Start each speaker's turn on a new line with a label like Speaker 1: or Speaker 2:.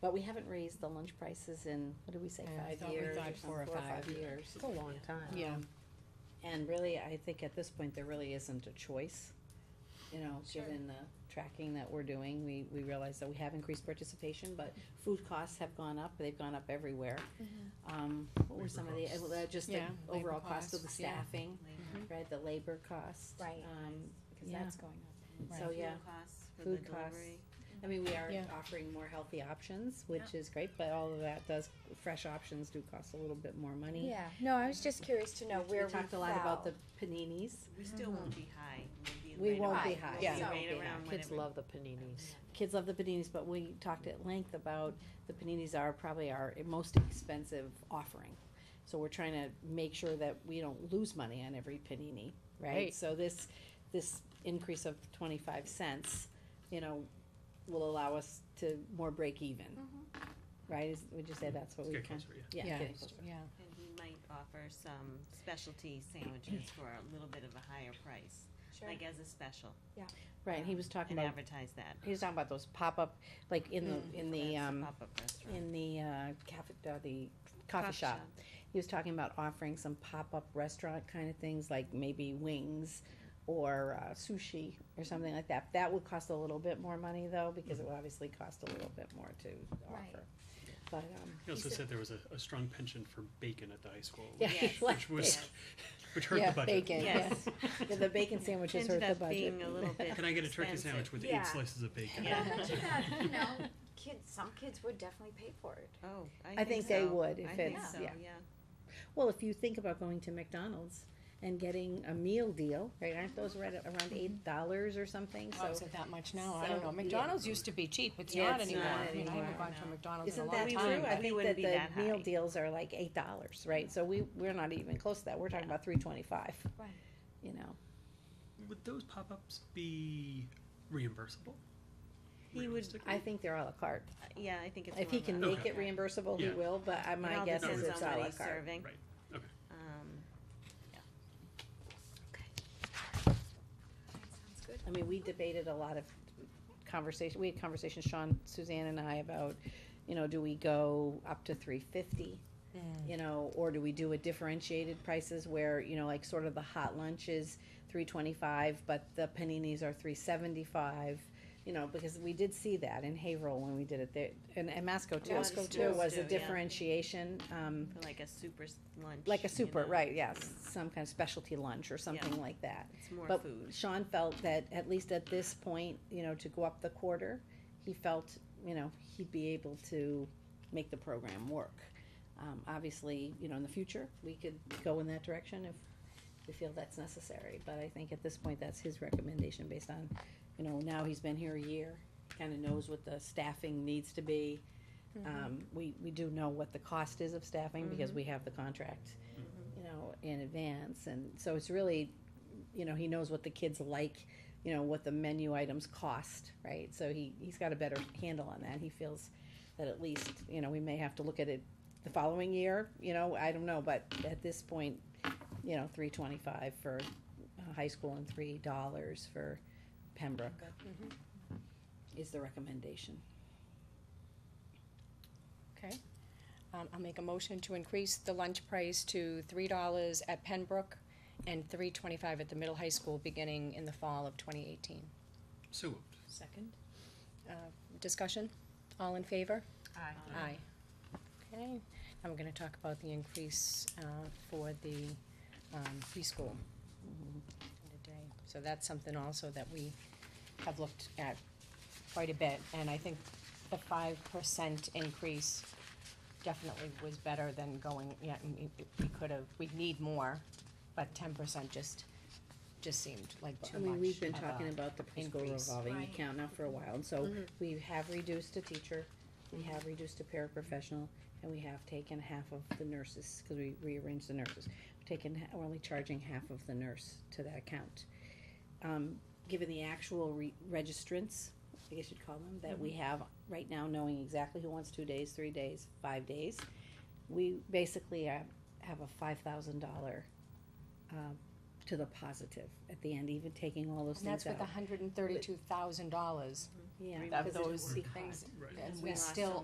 Speaker 1: But we haven't raised the lunch prices in, what did we say,
Speaker 2: Yeah, I
Speaker 1: five
Speaker 2: thought we
Speaker 1: years?
Speaker 2: thought
Speaker 1: some-
Speaker 2: four or five.
Speaker 1: years.
Speaker 2: a long time. Yeah.
Speaker 1: Um, And really, I think at this point, there really isn't a choice. You know,
Speaker 2: Sure.
Speaker 1: given the tracking that we're doing, we, we realize that we have increased participation, but food costs have gone up, they've gone up everywhere. Um, what were
Speaker 3: Labor
Speaker 1: some of the,
Speaker 3: costs.
Speaker 1: uh, just the
Speaker 2: Yeah, labor
Speaker 1: overall cost of the
Speaker 2: costs, yeah. Mm-hmm.
Speaker 1: staffing, right, the labor cost.
Speaker 4: Right.
Speaker 1: Um,
Speaker 4: Because
Speaker 1: Yeah.
Speaker 4: that's going up.
Speaker 1: so,
Speaker 2: Right.
Speaker 1: yeah.
Speaker 5: Fuel costs for the
Speaker 1: Food costs.
Speaker 5: delivery.
Speaker 1: I mean, we are
Speaker 2: Yeah.
Speaker 1: offering more healthy options, which is great, but all of that does, fresh options do cost a little bit more money.
Speaker 4: Yeah, no, I was just curious to know where
Speaker 1: We
Speaker 4: we
Speaker 1: talked a lot about
Speaker 4: fell.
Speaker 1: the paninis.
Speaker 5: We still won't be high. We'll
Speaker 1: We
Speaker 5: right
Speaker 1: won't
Speaker 5: around-
Speaker 1: be
Speaker 4: Right.
Speaker 1: high.
Speaker 5: we'll
Speaker 2: Yeah.
Speaker 5: be
Speaker 1: So-
Speaker 5: right around
Speaker 2: Kids
Speaker 5: whatever-
Speaker 2: love the paninis.
Speaker 1: Kids love the paninis, but we talked at length about the paninis are probably our most expensive offering. So we're trying to make sure that we don't lose money on every panini, right?
Speaker 2: Right.
Speaker 1: So this, this increase of twenty-five cents, you know, will allow us to more break even. Right, Is- would you say that's what we
Speaker 3: Get
Speaker 1: kind
Speaker 3: closer, yeah.
Speaker 1: Yeah, getting closer.
Speaker 2: Yeah.
Speaker 5: And we might offer some specialty sandwiches for a little bit of a higher price,
Speaker 4: Sure.
Speaker 5: like as a special.
Speaker 1: Right, and he was talking
Speaker 5: And
Speaker 1: about,
Speaker 5: advertise that.
Speaker 1: he was talking about those pop-up, like in the, in the,
Speaker 5: That's a
Speaker 1: um,
Speaker 5: pop-up restaurant.
Speaker 1: in the uh, cafe, uh, the coffee
Speaker 5: Coffee
Speaker 1: shop.
Speaker 5: shop.
Speaker 1: He was talking about offering some pop-up restaurant kind of things, like maybe wings or uh, sushi or something like that. That would cost a little bit more money though, because it would obviously cost a little bit more to
Speaker 4: Right.
Speaker 1: offer. But, um,
Speaker 3: He also said there was a, a strong penchant for bacon at the high school,
Speaker 1: Yeah,
Speaker 3: which,
Speaker 1: like
Speaker 3: which was,
Speaker 5: bacon.
Speaker 3: which hurt
Speaker 1: Yeah,
Speaker 3: the budget.
Speaker 1: bacon.
Speaker 5: Yes.
Speaker 1: yeah, the bacon sandwiches hurt
Speaker 5: Ended
Speaker 1: the
Speaker 5: up being a
Speaker 1: budget.
Speaker 5: little bit.
Speaker 3: Can I get a turkey sandwich
Speaker 5: expensive.
Speaker 3: with
Speaker 4: Yeah.
Speaker 3: eight slices of bacon?
Speaker 5: Yeah.
Speaker 4: But I bet you that, you know, kids, some kids would definitely pay for it.
Speaker 5: Oh, I think so.
Speaker 1: I think they would if
Speaker 5: I think
Speaker 1: it's-
Speaker 5: so,
Speaker 1: yeah.
Speaker 5: yeah.
Speaker 1: Well, if you think about going to McDonald's and getting a meal deal, right, aren't those right at
Speaker 5: Mm-hmm.
Speaker 1: around eight dollars or something?
Speaker 2: Oh, is
Speaker 1: So
Speaker 2: it that much now? I don't
Speaker 1: so,
Speaker 2: know.
Speaker 1: yeah.
Speaker 2: McDonald's used to be cheap. It's
Speaker 1: Yeah,
Speaker 2: not
Speaker 1: it's
Speaker 2: anymore.
Speaker 1: not
Speaker 2: I mean, I haven't
Speaker 1: anymore,
Speaker 2: gone to
Speaker 5: no.
Speaker 2: a McDonald's in a
Speaker 1: Isn't
Speaker 2: long
Speaker 1: that
Speaker 2: time.
Speaker 5: We
Speaker 1: true?
Speaker 5: would,
Speaker 1: I
Speaker 5: we
Speaker 1: think that
Speaker 5: wouldn't be
Speaker 1: the
Speaker 5: that
Speaker 1: meal
Speaker 5: high.
Speaker 1: deals are like eight dollars, right? So we, we're not even close to that. We're talking about three twenty-five,
Speaker 4: Right.
Speaker 1: you know?
Speaker 3: Would those pop-ups be reimbursable?
Speaker 5: He would,
Speaker 3: Realistically?
Speaker 1: I think they're à la carte.
Speaker 5: yeah, I think it's.
Speaker 1: If he
Speaker 5: more
Speaker 1: can
Speaker 5: like-
Speaker 1: make it reimbursable, he
Speaker 3: Yeah.
Speaker 1: will, but I-
Speaker 5: It
Speaker 1: my
Speaker 5: all
Speaker 1: guess is
Speaker 5: depends
Speaker 1: it's
Speaker 5: on
Speaker 1: à
Speaker 5: what
Speaker 1: la
Speaker 5: he's
Speaker 1: carte.
Speaker 5: serving.
Speaker 3: Right, okay.
Speaker 5: Um, yeah. Okay.
Speaker 4: That sounds good.
Speaker 1: I mean, we debated a lot of conversation, we had conversations, Sean, Suzanne and I about, you know, do we go up to three fifty? You know, or do we do a differentiated prices where, you know, like sort of the hot lunch is three twenty-five, but the paninis are three seventy-five? You know, because we did see that in Haverhill when we did it there, and, and Masco too.
Speaker 5: Masco
Speaker 1: There
Speaker 5: too.
Speaker 1: was a
Speaker 5: Too, yeah.
Speaker 1: differentiation, um,
Speaker 5: For Like a super s- lunch.
Speaker 1: like a
Speaker 5: you
Speaker 1: super,
Speaker 5: know.
Speaker 1: right, yes, some kind of specialty lunch or something
Speaker 5: Yeah.
Speaker 1: like that.
Speaker 5: It's more
Speaker 1: But
Speaker 5: food.
Speaker 1: Sean felt that at least at this point, you know, to go up the quarter, he felt, you know, he'd be able to make the program work. Um, obviously, you know, in the future, we could go in that direction if we feel that's necessary, but I think at this point, that's his recommendation based on, you know, now he's been here a year, kinda knows what the staffing needs to be.
Speaker 5: Mm-hmm.
Speaker 1: Um, we, we do know what the cost is of staffing because we have the contract,
Speaker 5: Mm-hmm.
Speaker 1: you know, in advance, and so it's really you know, he knows what the kids like, you know, what the menu items cost, right? So he, he's got a better handle on that. He feels that at least, you know, we may have to look at it the following year, you know, I don't know, but at this point, you know, three twenty-five for uh, high school and three dollars for Pembroke is the recommendation.
Speaker 2: Okay. Um, I'll make a motion to increase the lunch price to three dollars at Penbrook and three twenty-five at the middle high school beginning in the fall of twenty eighteen.
Speaker 3: So moved.
Speaker 2: Second. Uh, discussion? All in favor?
Speaker 5: Aye.
Speaker 2: Aye. Okay, and we're gonna talk about the increase, uh, for the, um, preschool today. So that's something also that we have looked at quite a bit, and I think the five percent increase definitely was better than going, yeah, we, we could have, we need more, but ten percent just, just seemed like too much
Speaker 1: I mean, we've been
Speaker 2: of
Speaker 1: talking
Speaker 2: a
Speaker 1: about the preschool
Speaker 2: increase. Mm-hmm.
Speaker 1: revolving
Speaker 4: Right.
Speaker 1: account now for a while, and so we have reduced a teacher, we have reduced a paraprofessional, and we have taken half of the nurses, cause we rearranged the nurses. We've taken, ha- we're only charging half of the nurse to that account. Um, given the actual re- registrants, I guess you'd call them, that
Speaker 2: Mm-hmm.
Speaker 1: we have right now, knowing exactly who wants two days, three days, five days, we basically have, have a five thousand dollar, um, to the positive at the end, even taking all those
Speaker 2: And that's
Speaker 1: things
Speaker 2: with
Speaker 1: out.
Speaker 2: hundred and thirty-two thousand dollars
Speaker 1: Yeah,
Speaker 2: of
Speaker 1: because it's
Speaker 2: those
Speaker 1: because-
Speaker 2: things,
Speaker 3: Right.
Speaker 2: and
Speaker 5: We
Speaker 2: we
Speaker 5: lost so
Speaker 2: still